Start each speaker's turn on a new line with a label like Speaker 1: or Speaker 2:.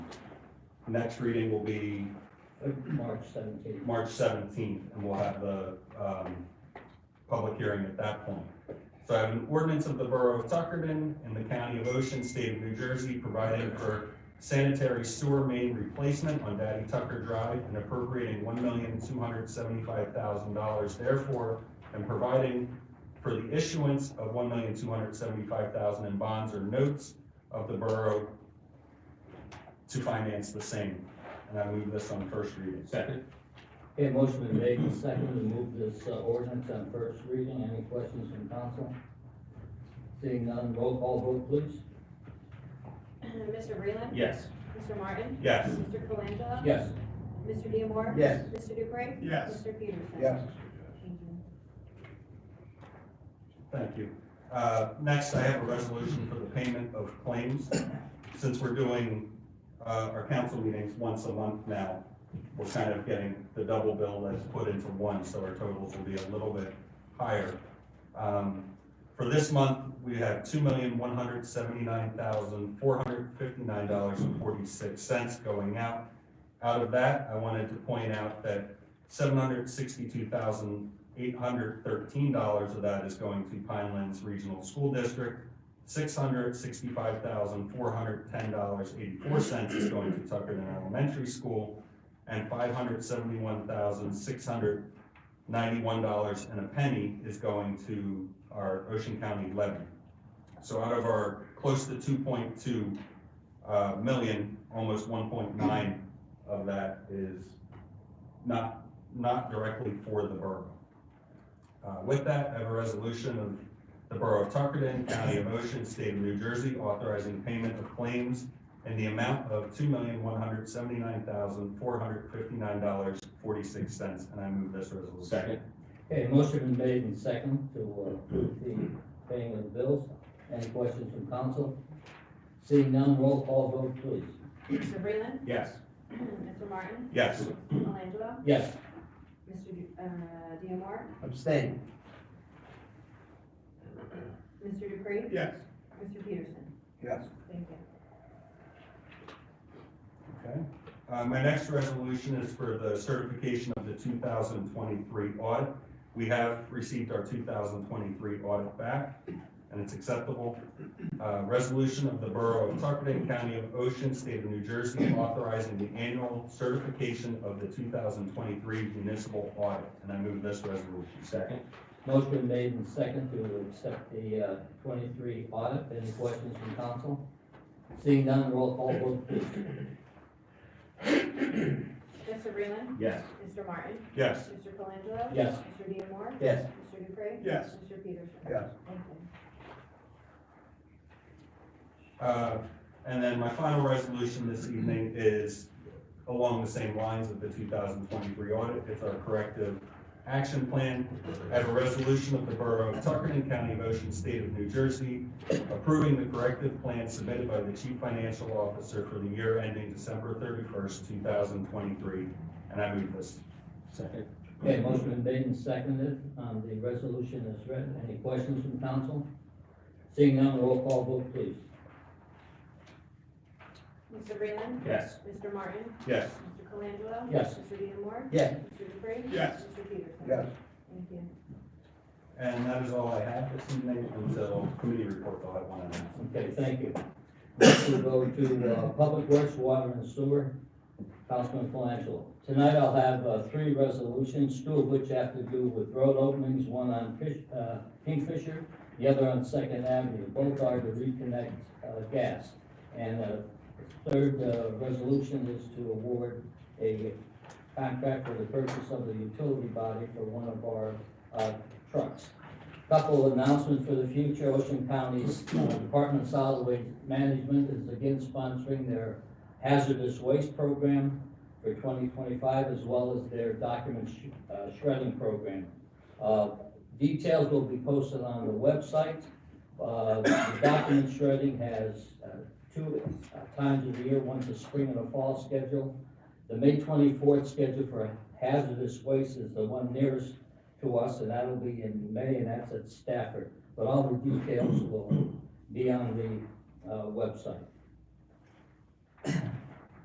Speaker 1: Next reading will be
Speaker 2: March seventeenth.
Speaker 1: March seventeenth, and we'll have the, um, public hearing at that point. So I have an ordinance of the Borough of Tuckerden in the County of Ocean, State of New Jersey, providing for sanitary sewer main replacement on Daddy Tucker Drive and appropriating one million two hundred seventy-five thousand dollars therefore, and providing for the issuance of one million two hundred seventy-five thousand in bonds or notes of the borough to finance the same. And I move this on first reading.
Speaker 3: Second.
Speaker 2: Okay, motion been made and seconded to move this uh, ordinance on first reading. Any questions from council? Seeing none, roll call vote please.
Speaker 4: Mr. Breland.
Speaker 3: Yes.
Speaker 4: Mr. Martin.
Speaker 1: Yes.
Speaker 4: Mr. Colangelo.
Speaker 2: Yes.
Speaker 4: Mr. Diemar.
Speaker 2: Yes.
Speaker 4: Mr. Dupre.
Speaker 3: Yes.
Speaker 4: Mr. Peterson.
Speaker 2: Yes.
Speaker 4: Thank you.
Speaker 1: Thank you. Uh, Next, I have a resolution for the payment of claims. Since we're doing uh, our council meetings once a month now, we're kind of getting the double bill that's put into one, so our totals will be a little bit higher. Um, For this month, we have two million, one hundred seventy-nine thousand, four hundred fifty-nine dollars and forty-six cents going out. Out of that, I wanted to point out that seven hundred sixty-two thousand, eight hundred thirteen dollars of that is going to Pinelands Regional School District. Six hundred sixty-five thousand, four hundred ten dollars, eighty-four cents is going to Tuckerton Elementary School, and five hundred seventy-one thousand, six hundred ninety-one dollars and a penny is going to our Ocean County levy. So out of our close to two point two, uh, million, almost one point nine of that is not, not directly for the borough. Uh, With that, I have a resolution of the Borough of Tuckerton, County of Ocean, State of New Jersey, authorizing payment of claims in the amount of two million, one hundred seventy-nine thousand, four hundred fifty-nine dollars, forty-six cents, and I move this resolution.
Speaker 3: Second.
Speaker 2: Okay, motion been made and seconded to uh, approve the paying of the bills. Any questions from council? Seeing none, roll call vote please.
Speaker 4: Mr. Breland.
Speaker 3: Yes.
Speaker 4: Mr. Martin.
Speaker 1: Yes.
Speaker 4: Mr. Colangelo.
Speaker 2: Yes.
Speaker 4: Mr. Du- uh, Diemar.
Speaker 5: Abstain.
Speaker 4: Mr. Dupre.
Speaker 3: Yes.
Speaker 4: Mr. Peterson.
Speaker 5: Yes.
Speaker 4: Thank you.
Speaker 1: Okay. Uh, my next resolution is for the certification of the two thousand twenty-three audit. We have received our two thousand twenty-three audit back, and it's acceptable. Uh, resolution of the Borough of Tuckerton, County of Ocean, State of New Jersey, authorizing the annual certification of the two thousand twenty-three municipal audit, and I move this resolution.
Speaker 3: Second.
Speaker 2: Motion been made and seconded to accept the uh, twenty-three audit. Any questions from council? Seeing none, roll call vote please.
Speaker 4: Mr. Breland.
Speaker 3: Yes.
Speaker 4: Mr. Martin.
Speaker 1: Yes.
Speaker 4: Mr. Colangelo.
Speaker 2: Yes.
Speaker 4: Mr. Diemar.
Speaker 5: Yes.
Speaker 4: Mr. Dupre.
Speaker 3: Yes.
Speaker 4: Mr. Peterson.
Speaker 5: Yes.
Speaker 4: Thank you.
Speaker 1: Uh, And then my final resolution this evening is along the same lines of the two thousand twenty-three audit. It's our corrective action plan. I have a resolution of the Borough of Tuckerton, County of Ocean, State of New Jersey, approving the corrective plan submitted by the Chief Financial Officer for the year ending December thirty-first, two thousand twenty-three. And I move this.
Speaker 3: Second.
Speaker 2: Okay, motion been made and seconded, um, the resolution is read, any questions from council? Seeing none, roll call vote please.
Speaker 4: Mr. Breland.
Speaker 3: Yes.
Speaker 4: Mr. Martin.
Speaker 1: Yes.
Speaker 4: Mr. Colangelo.
Speaker 2: Yes.
Speaker 4: Mr. Diemar.
Speaker 5: Yes.
Speaker 4: Mr. Dupre.
Speaker 3: Yes.
Speaker 4: Mr. Peterson.
Speaker 5: Yes.
Speaker 4: Thank you.
Speaker 1: And that is all I have this evening until committee reports. I'll have one announcement.
Speaker 2: Okay, thank you. Next we go to, uh, Public Works, Water and Sewer, Councilman Colangelo. Tonight I'll have, uh, three resolutions, two of which have to do with road openings, one on Fish, uh, Kingfisher, the other on Second Avenue, both are to reconnect, uh, gas. And, uh, third, uh, resolution is to award a contract for the purchase of the utility body for one of our, uh, trucks. Couple of announcements for the future, Ocean County's uh, Department of Solid Waste Management is again sponsoring their hazardous waste program for twenty twenty-five, as well as their document sh- uh, shredding program. Uh, Details will be posted on the website. Uh, The document shredding has uh, two uh, times of the year, one's a spring and a fall schedule. The May twenty-fourth schedule for hazardous waste is the one nearest to us, and that'll be in May, and that's at Stafford. But all the details will be on the, uh, website.